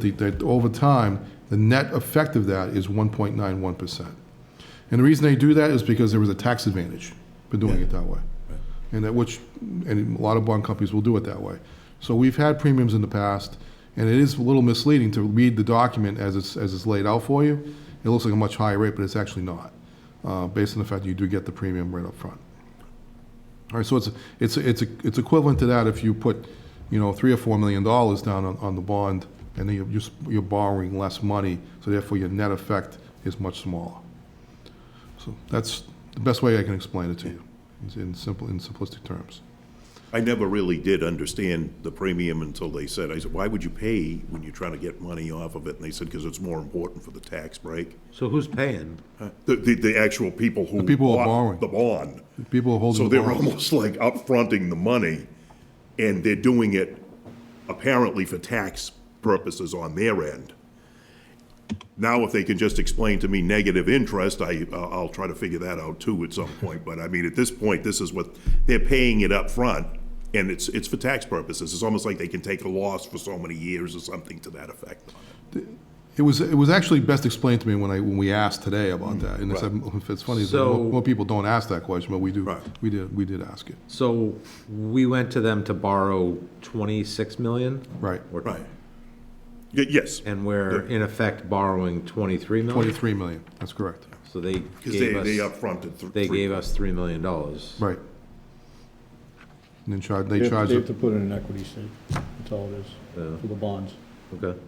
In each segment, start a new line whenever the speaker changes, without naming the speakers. the- that over time, the net effect of that is 1.91%. And the reason they do that is because there was a tax advantage for doing it that way. And that which, and a lot of bond companies will do it that way. So we've had premiums in the past, and it is a little misleading to read the document as it's, as it's laid out for you. It looks like a much higher rate, but it's actually not, uh, based on the fact that you do get the premium right up front. All right, so it's, it's, it's, it's equivalent to that if you put, you know, three or four million dollars down on, on the bond, and then you're, you're s- you're borrowing less money, so therefore your net effect is much smaller. So that's the best way I can explain it to you, is in simple, in simplistic terms.
I never really did understand the premium until they said, I said, why would you pay when you're trying to get money off of it? And they said, because it's more important for the tax break.
So who's paying?
The, the, the actual people who.
The people who are
bought
borrowing.
The bond.
People are holding.
So
the
they're
bond.
almost like upfronting the money, and they're doing it apparently for tax purposes on their end. Now, if they can just explain to me negative interest, I, uh, I'll try to figure that out too at some point, but I mean, at this point, this is what, they're paying it up front, and it's, it's for tax purposes. It's almost like they can take a loss for so many years or something to that effect.
It was, it was actually best explained to me when I, when we asked today
Mm,
about that, and it's, it's funny, that
So-
more more people don't ask that question, but we do,
Right.
we did, we did ask it,
So we went to them to borrow 26 million?
right.
Or-
Right. Y- Yes,
And we're in effect borrowing 23 million?
Twenty-three million, that's correct,
So they
because they,
gave
they
us,
upfronted. th-
they
three-
gave us $3 million. dollars.
right. And then charge, they
They have
charge.
they
it.
have to put in an equity stake, that's all it is, for the bonds.
Okay.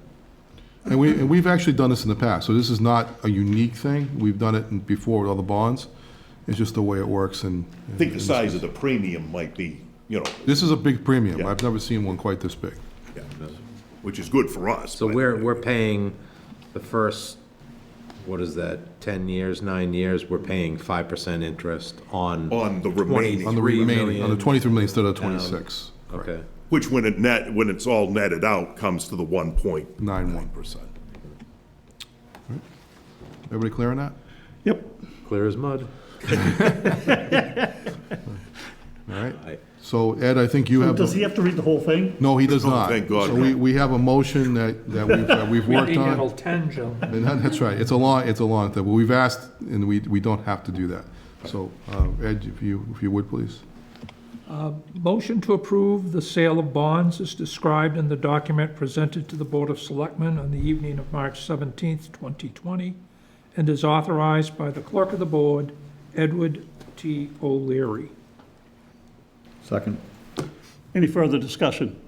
And we, and we've actually done this in the past, so this is not a unique thing. We've done it in- before with other bonds. It's just the way it works and.
I think the size of the premium might be, you know,
This is a big premium.
Yeah.
I've never seen one quite this big.
Yeah, which is good for us.
So
but-
we're, we're paying the first, what is that, 10 years, nine years? We're paying 5% interest on,
On the remaining,
On the
3
remaining, on the
million
twenty-three million instead of twenty-six.
okay.
which when it net, when it's all netted out, comes to the one point
Nine
nine
one.
percent.
Everybody clear on that?
Yep.
Clear as mud.
All
Aye.
right. So Ed, I think you have.
Does
the-
he have to read the whole thing?
No, he does
Oh,
not.
thank God.
So we, we have a motion that, that we've, that we've
We
worked
need
on.
until 10, Joe.
And that- That's right, it's a long, it's a long thing, but we've asked, and we, we don't have to do that. So, uh, Ed, if you, if you would, please.
Motion to approve the sale of bonds is described in the document presented to the Board of Selectmen on the evening of March 17th, 2020, and is authorized by the Clerk of the Board, Edward T. O'Leary.
Second.
Any further discussion?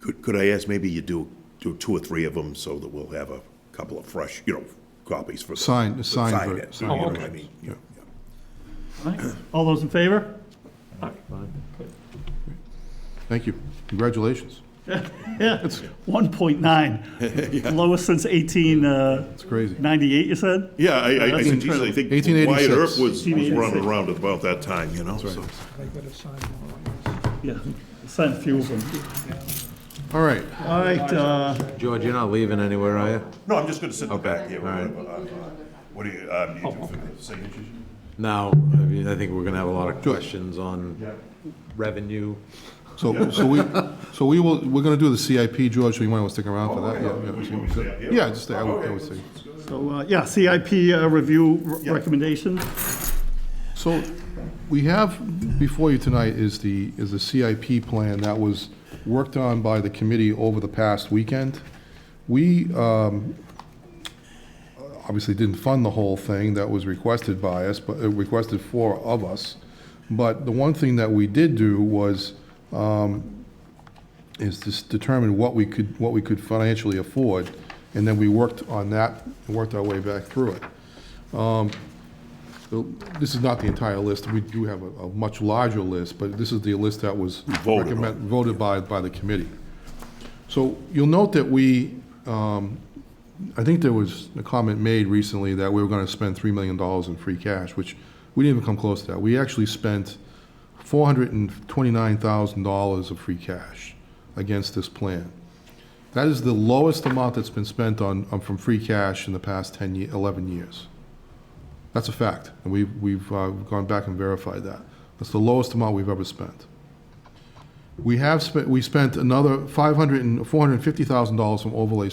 Could, could I ask, maybe you do, do two or three of them so that we'll have a couple of fresh, you know, copies for. the-
Signed-
to
signed
sign
ver-
it,
signed
you know what
version.
I mean? Yeah, yeah.
All right. All those in favor?
Thank you. Congratulations.
Yeah, it's 1.9, lowest since 1898,
It's crazy.
you said?
Yeah, I, I, I
That's
think, geez, I
incredible.
think Wyatt
1886.
Earp was, was running around at about that time, you know, so.
I gotta sign one of these.
Yeah, sent a few of them.
All right.
All right, uh,
George, you're not leaving anywhere, are you?
No, I'm just gonna sit in the back here.
all right.
whatever, uh, What do you, um,
Oh,
you do for the signatures?
No, I mean, I think we're gonna have a lot of
Sure.
questions on revenue.
So, so we, so we will, we're gonna do the CIP, George, so you might wanna stick around for that.
Oh, We-
Yeah,
we stay up
Yeah,
here?
yeah, just stay, I would, I would say.
so, uh, yeah, CIP uh, review r- recommendation.
So we have before you tonight is the, is the CIP plan that was worked on by the committee over the past weekend. We um, obviously didn't fund the whole thing that was requested by us, but, uh, requested for of us. But the one thing that we did do was, um, is to s- determine what we could, what we could financially afford, and then we worked on that, and worked our way back through it. So This is not the entire list. We do have a, a much larger list, but this is the list that was
Voted on.
recommend- voted by, by the committee. So you'll note that we, um, I think there was a comment made recently that we were gonna spend three million dollars in free cash, which we didn't even come close to that. We actually spent four hundred and twenty-nine thousand dollars of free cash against this plan. That is the lowest amount that's been spent on, on- from free cash in the past 10, ye- 11 years. That's a fact, and we've, we've uh, gone back and verified that. That's the lowest amount we've ever spent. We have spent, we spent another 500 and $450,000 from overlay